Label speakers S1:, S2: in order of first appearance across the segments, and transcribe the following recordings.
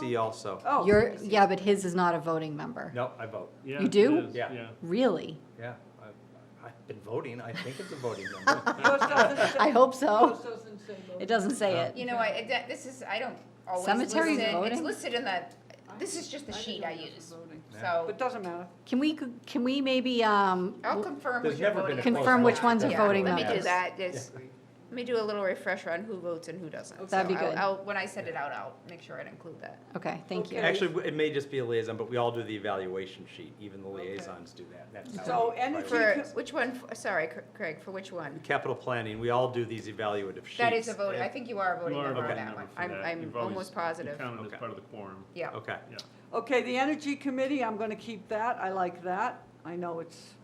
S1: MPD also.
S2: Oh.
S3: You're, yeah, but his is not a voting member.
S1: No, I vote,
S3: You do?
S1: Yeah.
S3: Really?
S1: yeah. I- I've been voting, I think it's a voting number.
S2: Yours doesn't say-
S3: I hope so.
S2: yours doesn't say vote.
S3: It doesn't say it.
S4: You know, I, that- this is, I don't always
S3: Cemetery
S4: listen, it's
S3: voting?
S4: listed in the, this is just the sheet I use,
S2: But
S4: so
S2: Oh, doesn't matter.
S3: Can we, can we maybe, um,
S4: I'll confirm
S1: There's
S4: what you're
S1: never been
S4: voting.
S1: a
S4: on.
S1: close
S3: Confirm which
S1: election.
S3: ones are
S4: Yeah,
S3: voting
S4: Let me do
S3: members.
S4: that, just, let me do a little refresher on who votes and who doesn't.
S3: That'd be
S4: So I'll-
S3: good.
S4: I'll- When I send it out, I'll make sure I'd include that.
S3: okay, thank you.
S2: Okay.
S1: Actually, it may just be a liaison, but we all do the evaluation sheet, even the liaisons do that. That's how
S2: So
S1: we
S2: energy-
S1: prioritize.
S4: For, which one, f- sorry, Cr- Craig, for which one?
S1: Capital planning, we all do these evaluative sheets.
S4: That is a vote, I think Oh, you are a voting
S5: You are a
S4: member on
S5: voting
S4: that
S5: member
S4: one.
S5: for
S4: I'm,
S5: that.
S4: I'm
S5: You've always-
S4: almost
S5: You
S4: positive,
S5: count it
S1: Okay.
S5: as part of the quorum.
S4: yeah.
S1: Okay,
S5: Yeah.
S2: Okay, the Energy Committee, I'm going to keep that. I like that. I know it's,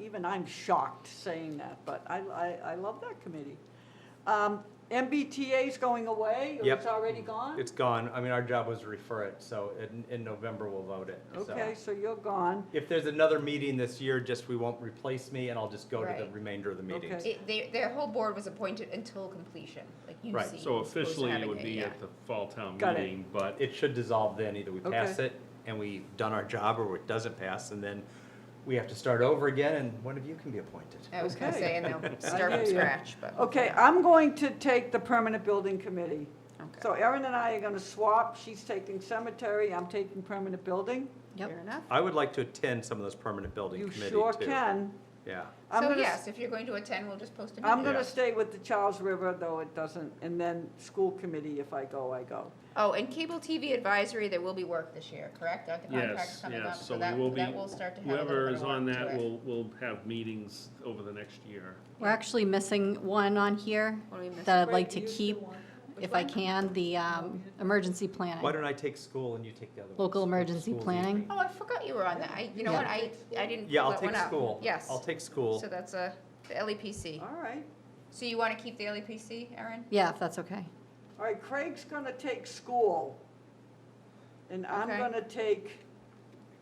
S2: even I'm shocked saying that, but I, I, I love that committee. Um, MBTA is going away? or It's
S1: Yep.
S2: already gone?
S1: it's gone, I mean, our job was to refer it, so in, in November we'll vote it, so.
S2: Okay, so you're gone.
S1: If there's another meeting this year, just we won't replace me and I'll just go to the
S4: Right.
S1: remainder of the meetings.
S2: Okay.
S4: It, they, their whole board was appointed until completion, like you
S1: Right,
S4: see.
S5: So
S4: as opposed to
S5: officially, it
S4: having
S5: would
S4: a- uh,
S5: be
S4: yeah.
S5: at the fall town
S2: Got it.
S5: meeting, but
S1: It should dissolve then, either we pass
S2: Okay.
S1: it and we've done our job or it doesn't pass and then we have to start over again and one of you can be appointed.
S4: I was gonna
S2: Okay.
S4: say, and they'll
S2: hear
S4: start from
S2: ya.
S4: scratch, but.
S2: Okay, I'm going to take the Permanent Building Committee.
S4: Okay.
S2: So Erin and I are going to swap. She's taking cemetery, I'm taking permanent building.
S3: Yep.
S4: Fair enough.
S1: I would like to attend some of those permanent building
S2: You
S1: committees too.
S2: sure can.
S1: Yeah,
S2: I'm
S4: So
S2: gonna s-
S4: yes, if you're going to attend, we'll just post a
S2: I'm
S4: note.
S2: going
S1: Yeah.
S2: to stay with the Charles River, though it doesn't, and then school committee, if I go, I go.
S4: Oh, and cable TV advisory, there will be work this year, correct? Aren't the contracts
S5: yes,
S4: coming up?
S5: yes, so
S4: that-
S5: we will be,
S4: That will start to have a little
S5: whoever
S4: bit
S5: is
S4: of
S5: on
S4: work to
S5: that
S4: it.
S5: will, will have meetings over the next year.
S3: We're actually missing one on here
S4: What do we miss?
S3: that I'd like
S2: Craig,
S3: to
S2: you
S3: keep,
S2: still want-
S3: if I can, the, um, emergency
S1: why
S3: planning.
S1: don't I take school and you take the other one?
S3: Local emergency planning?
S4: Oh, I forgot you were on that. I, you know
S3: Yeah.
S4: what, I, I didn't
S1: Yeah,
S4: pull
S1: I'll
S4: that one
S1: take
S4: up.
S1: school.
S4: Yes.
S1: I'll take school.
S4: So that's a, the LEPC.
S2: All right,
S4: So you want to keep the LEPC, Erin?
S3: Yeah, if that's okay.
S2: all right, Craig's going to take school. And I'm
S4: Okay.
S2: going to take,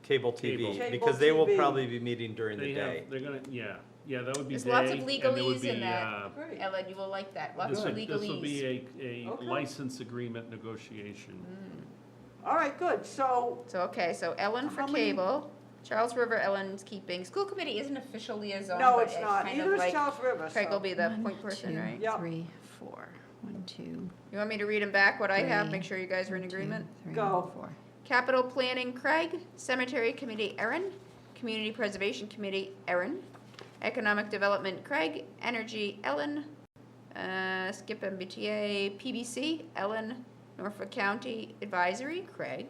S1: Cable
S5: Cable.
S1: TV,
S2: Cable
S1: because they will
S2: TV.
S1: probably be meeting during the
S5: They
S1: day.
S5: have, they're gonna, yeah, yeah, that would be
S4: There's
S5: day,
S4: lots of
S5: and there would
S4: legalese in
S5: be,
S4: that.
S5: uh,
S2: great,
S4: Ellen, you will like that. Lots
S5: This
S4: of
S5: would, this will
S4: legalese.
S5: be a, a
S2: Okay.
S5: license agreement negotiation.
S2: all right, good, so,
S4: So, okay, so Ellen for
S2: How many-
S4: cable, Charles River, Ellen's keeping. School committee isn't official liaison,
S2: no,
S4: but
S2: it's not,
S4: kind of
S2: neither is
S4: like-
S2: Charles River,
S4: Craig will
S2: so.
S4: be the
S3: One,
S4: point person,
S3: two,
S4: right?
S2: Yep.
S3: Three, four. One, two,
S4: You want me to read them back, what I have,
S3: Three,
S4: make sure you guys are in
S3: one, two,
S4: agreement?
S3: three,
S2: Go.
S3: four.
S4: Capital Planning, Craig. Cemetery Committee, Erin. Community Preservation Committee, Erin. Economic Development, Craig. Energy, Ellen. Uh, Skip MBTA, PBC, Ellen. Norfolk County Advisory, Craig.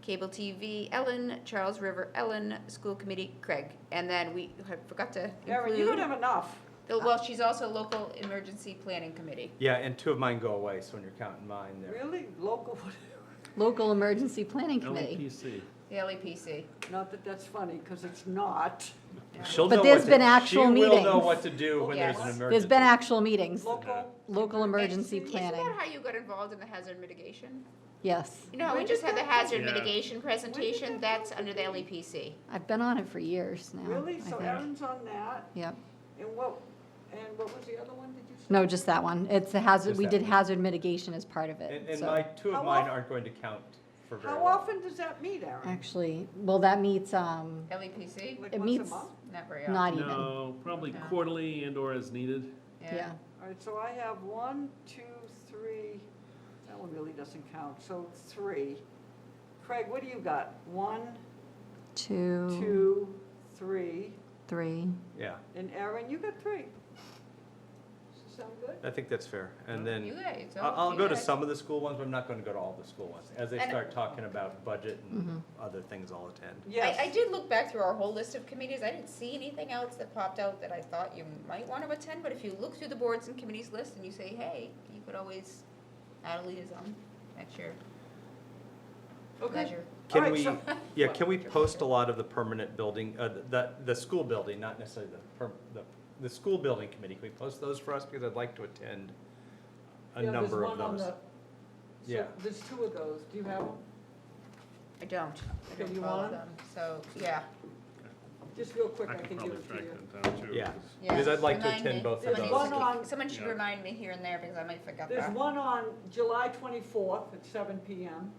S4: Cable TV, Ellen. Charles River, Ellen. School Committee, Craig. And then we have- forgot to
S2: Erin, you don't
S4: include,
S2: have enough.
S4: the- well, she's also Local Emergency Planning Committee.
S1: Yeah, and two of mine go away, so when you're counting mine there.
S2: Really, local,
S3: Local Emergency Planning
S4: Mm-hmm.
S3: Committee.
S5: LPC.
S4: The E LEPC.
S2: not that that's funny, because it's not.
S1: She'll
S3: But
S1: know
S3: there's
S1: what to-
S3: been actual
S1: She will know
S3: meetings.
S1: what to do when
S4: Yes.
S1: there's an
S4: There's
S1: emergency.
S3: There's been actual meetings,
S2: Local,
S3: local emergency
S4: Isn't
S3: planning,
S4: that how you got involved in the hazard mitigation?
S3: yes.
S4: You know, how we
S2: When
S4: just
S2: did
S4: had the
S2: that
S4: hazard
S5: happen? Yeah.
S4: mitigation presentation, that's under the E LEPC.
S3: I've been on it for years now. I
S2: really, so
S3: think.
S2: Erin's on that,
S3: Yep,
S2: and what, and what was the other one, did you say?
S3: no, just that one, it's the hazard,
S1: Just
S3: we
S1: that
S3: did
S1: one.
S3: hazard mitigation as part of
S1: And,
S3: it,
S1: and
S3: so.
S1: my, two
S2: How
S1: of mine
S2: of-
S1: aren't going to count for very long.
S2: How often does that meet, Erin?
S3: Actually, well, that meets, um,
S4: LEPC?
S2: Like
S3: it
S2: once a
S3: meets-
S2: month?
S4: E Not very often.
S3: not even,
S5: No, probably
S4: Yeah.
S5: quarterly and or as needed.
S3: yeah.
S2: All right, so I have one, two, three, that one really doesn't count, so three. Craig, what do you got? One,
S3: Two,
S2: two, three,
S3: three,
S1: Yeah,
S2: and Erin, you got three. Does that Sound good?
S1: I think that's fair. And
S4: You
S1: then,
S4: guys,
S1: I-
S4: oh,
S1: I'll
S4: you
S1: go to
S4: guys.
S1: some of the school ones, but I'm not gonna go to all the school ones. As they
S4: And- Mm-hmm.
S1: start talking about budget and other things, I'll attend.
S2: Yes.
S4: I, I did look back through our whole list of committees, I didn't see anything else that popped out that I thought you might want to attend, but if you look through the boards and committees list and you say, hey, you could always add a liaison at your
S2: Okay.
S4: leisure.
S1: Can
S2: Alright,
S1: we,
S2: so-
S1: yeah, can we post a lot of the permanent building, uh, the- the, the school building, not necessarily the, per- the, the school building committee? Can we post those for us? Because I'd like to attend a
S2: Yeah, there's
S1: number of
S2: one on
S1: those.
S2: the- so
S1: Yeah.
S2: There's two of those, do you have them?
S4: I don't, I
S2: Okay,
S4: don't
S2: you
S4: follow
S2: want 'em?
S4: them, so, yeah,
S2: Just real quick,
S5: I
S2: I
S5: could
S2: can give
S5: probably
S2: it to
S5: track
S2: you.
S5: that down too.
S1: Yeah.
S5: 'cause-
S4: yeah.
S1: Because I'd like to
S4: Remind me.
S1: attend both of
S4: Someone
S2: those.
S4: needs
S2: One
S4: to keep-
S2: on-
S4: Someone should
S5: Yeah.
S4: remind me here and there because I might forget that.
S2: There's one on July 24th at seven PM.